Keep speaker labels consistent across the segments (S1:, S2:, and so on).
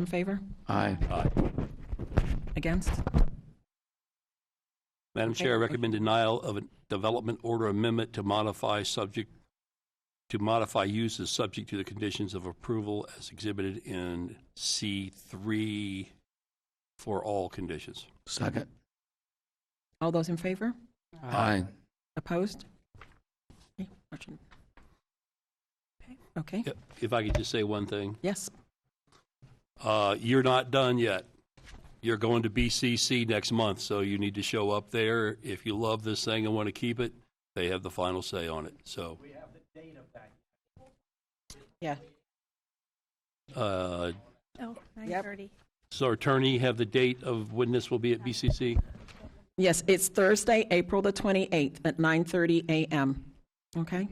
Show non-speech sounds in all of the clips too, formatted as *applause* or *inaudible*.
S1: In favor?
S2: Aye.
S1: Against?
S3: Madam Chair, I recommend denial of a development order amendment to modify subject, to modify uses subject to the conditions of approval as exhibited in C3 for all conditions.
S2: Second.
S1: All those in favor?
S2: Aye.
S1: Opposed? Okay, motion- Okay, Okay,
S3: If- If I could just say one thing,
S1: yes.
S3: uh, you're not done yet. You're going to BCC next month, so you need to show up there. If you love this thing and want to keep it, they have the final say on it, so.
S1: Yeah.
S3: uh,
S4: Oh,
S1: Yep.
S4: 9:30.
S3: So attorney, have the date of when this will be at BCC?
S1: Yes, it's Thursday, April the 28th at 9:30 a.m. Okay?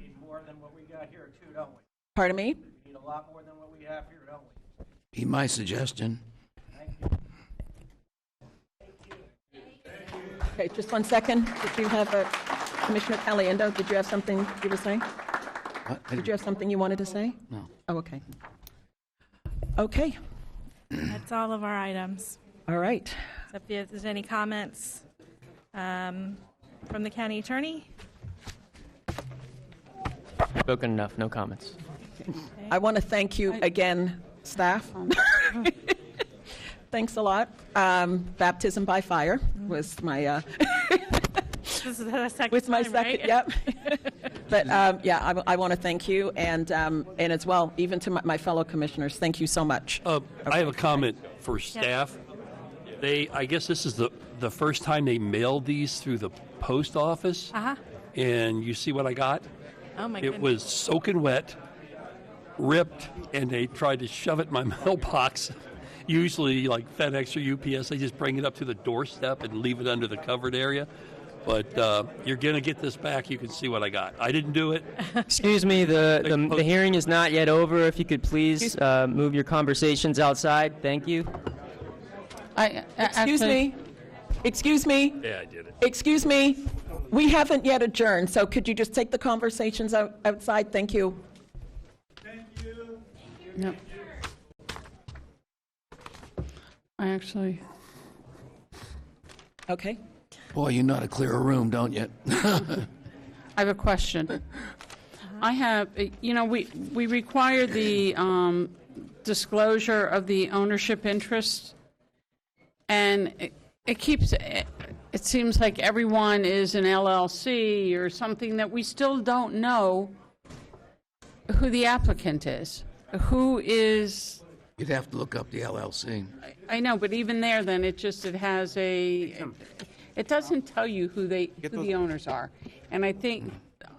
S1: Pardon me?
S2: Be my suggestion.
S1: Okay, just one second. Did you have, a Commissioner Caliendo, did you have something you were saying?
S2: What?
S1: Did you have something you wanted to say?
S2: No.
S1: Oh, okay. Okay,
S4: That's all of our items.
S1: all right.
S4: So If there's any comments um, from the county attorney?
S5: Spoken enough, no comments.
S1: I want to thank you again, staff. *laughs* Thanks a lot. Um, Baptism by fire was my, uh,
S4: This is the second
S1: was my
S4: time, right?
S1: second, yep. *laughs* But, um, yeah, I, want to thank you, and, um, and as well, even to my- my fellow commissioners, thank you so much.
S3: Uh, I have a comment for staff. They, I guess this is the, the first time they mailed these through the post office.
S4: Uh-huh.
S3: And you see what I got?
S4: Oh, my
S3: It
S4: goodness.
S3: was soaking wet, ripped, and they tried to shove it in my *laughs* mailbox. Usually, like FedEx or UPS, they just bring it up to the doorstep and leave it under the covered area. But uh, you're going to get this back. You can see what I got. I didn't do it.
S5: Excuse me, the, the, the hearing is not yet over. If you could please uh, move your conversations outside, thank you.
S6: I, I-
S1: Excuse
S6: actually-
S1: me, excuse me,
S3: Yeah, I did it.
S1: excuse me, we haven't yet adjourned, so could you just take the conversations out- outside? Thank you.
S6: No. I actually,
S1: Okay?
S2: Boy, you know how to clear a room, don't you? *laughs*
S6: I have a question.
S1: Uh-huh.
S6: I have, you know, we, we require the um, disclosure of the ownership interest, and it- it keeps, it it seems like everyone is an LLC or something that we still don't know who the applicant is, who is
S2: You'd have to look up the LLC.
S6: I know, but even there, then, it just, it has a, it doesn't tell you who they, who the owners are. And I think,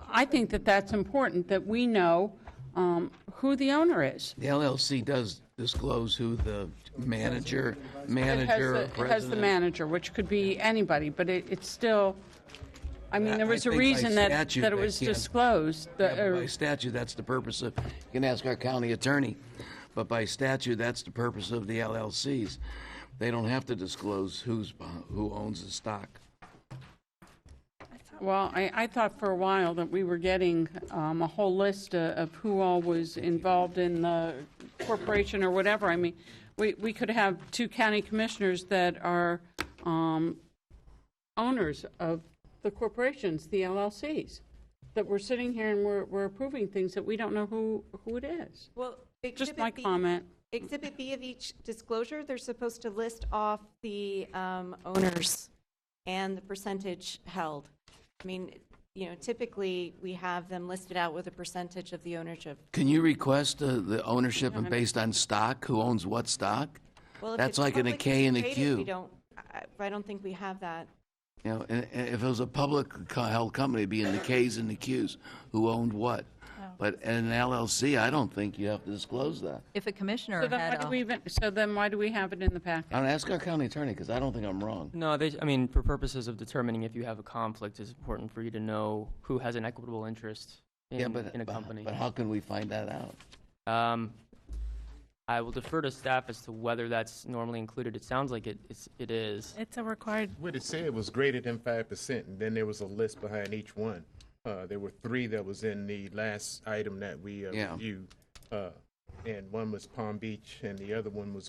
S6: I think that that's important, that we know um, who the owner is.
S2: The LLC does disclose who the manager,
S6: It has
S2: manager, or
S6: the- It has the
S2: president.
S6: manager, which could be anybody, but it, it's still, I mean, there
S2: I
S6: was a
S2: think by
S6: reason that,
S2: statute
S6: that it
S2: they
S6: was
S2: can't.
S6: disclosed. the-
S2: Yeah, but By
S6: or-
S2: statute, that's the purpose of, you can ask our county attorney, but by statute, that's the purpose of the LLCs. They don't have to disclose who's, beh- who owns the stock.
S6: Well, I, I thought for a while that we were getting um, a whole list uh, of who all was involved in the corporation or whatever. I mean, we, we could have two county commissioners that are um, owners of the corporations, the LLCs, that we're sitting here and we're, we're approving things that we don't know who, who it is.
S7: Well,
S6: Just
S7: exhibit
S6: my
S7: B-
S6: comment.
S7: Exhibit B of each disclosure, they're supposed to list off the um, owners and the percentage held. I mean, you know, typically, we have them listed out with a percentage of the ownership.
S2: Can you request uh, the ownership and based on stock, who owns what stock?
S7: Well, if
S2: That's
S7: it's
S2: like in a
S7: publicly
S2: K and a
S7: traded,
S2: Q.
S7: We don't, I- I don't think we have that.
S2: You know, and- and if it was a public co- held company, it'd be in the Ks and the Qs, who owned what. But in an LLC, I don't think you have to disclose that.
S8: If a commissioner
S6: So then why
S8: had
S6: do
S8: a
S6: we even, so then why do we have it in the packet?
S2: I don't ask our county attorney, because I don't think I'm wrong.
S5: No, they, I mean, for purposes of determining if you have a conflict, it's important for you to know who has an equitable interest
S2: Yeah,
S5: in,
S2: but,
S5: in a
S2: but-
S5: company.
S2: but how can we find that out?
S5: Um, I will defer to staff as to whether that's normally included. It sounds like it, it's, it is.
S4: It's a required,
S9: What it said was greater than five percent, and then there was a list behind each one. Uh, there were three that was in the last item that we uh,
S2: Yeah.
S9: reviewed. Uh, and one was Palm Beach, and the other one was